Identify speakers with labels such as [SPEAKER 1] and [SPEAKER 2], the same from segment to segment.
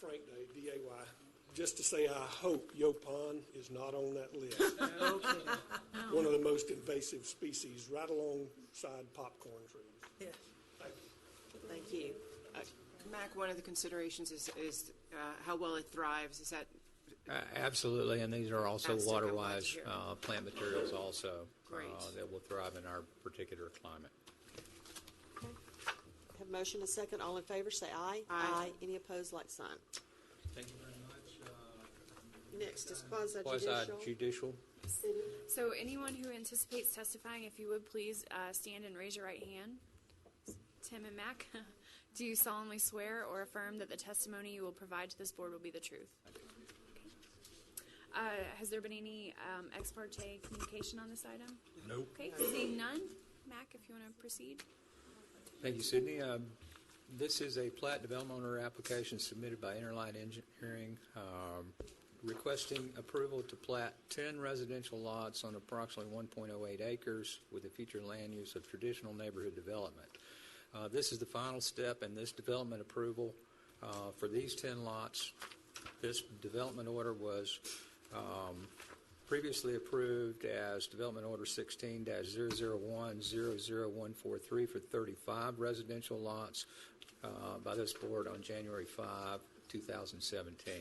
[SPEAKER 1] Frank Day, D-A-Y, just to say, I hope Yopon is not on that list. One of the most invasive species, right alongside popcorn trees.
[SPEAKER 2] Yeah.
[SPEAKER 1] Thank you.
[SPEAKER 2] Thank you.
[SPEAKER 3] Uh, Mac, one of the considerations is, is uh, how well it thrives. Is that
[SPEAKER 4] A- Absolutely, and these are also
[SPEAKER 3] That's what I wanted to
[SPEAKER 4] water-wise
[SPEAKER 3] hear.
[SPEAKER 4] uh, plant materials also. uh,
[SPEAKER 3] Great.
[SPEAKER 4] That will thrive in our particular climate.
[SPEAKER 2] Have a motion, a second. All in favor, say aye.
[SPEAKER 3] Aye.
[SPEAKER 2] Any opposed, like sign.
[SPEAKER 5] Thank you very much. Uh,
[SPEAKER 2] Next is quasi judicial.
[SPEAKER 4] Quasi-judicial,
[SPEAKER 6] So anyone who anticipates testifying, if you would please uh, stand and raise your right hand. Tim and Mac, do you solemnly swear or affirm that the testimony you will provide to this board will be the truth? Uh, Has there been any um, ex parte communication on this item?
[SPEAKER 4] Nope.
[SPEAKER 6] Okay, seeing none, Mac, if you want to proceed.
[SPEAKER 4] Thank you, Sydney. Um, This is a plat development owner application submitted by Interline Engineering um, requesting approval to plat 10 residential lots on approximately 1.08 acres with the future land use of traditional neighborhood development. Uh, This is the final step in this development approval uh, for these 10 lots. This development order was um, previously approved as Development Order 16-001-00143 for 35 residential lots uh, by this board on January 5, 2017.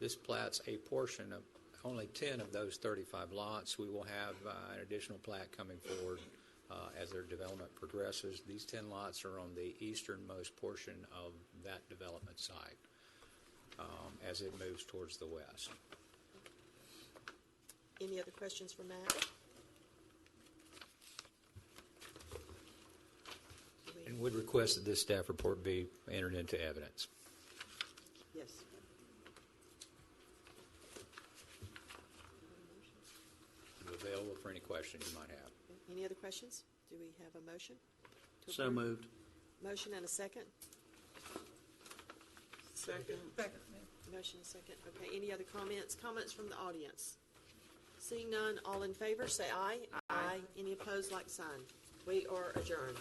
[SPEAKER 4] This plats a portion of only 10 of those 35 lots. We will have uh, an additional plat coming forward uh, as their development progresses. These 10 lots are on the easternmost portion of that development site um, as it moves towards the west.
[SPEAKER 2] Any other questions for Matt?
[SPEAKER 4] And would request that this staff report be entered into evidence.
[SPEAKER 2] Yes.
[SPEAKER 4] I'm available for any questions you might have.
[SPEAKER 2] Any other questions? Do we have a motion? to
[SPEAKER 5] So
[SPEAKER 2] approve?
[SPEAKER 5] moved.
[SPEAKER 2] Motion and a second? Second. Motion and second. Okay, any other comments? Comments from the audience? Seeing none, all in favor, say aye. Aye. Any opposed, like sign. We are adjourned.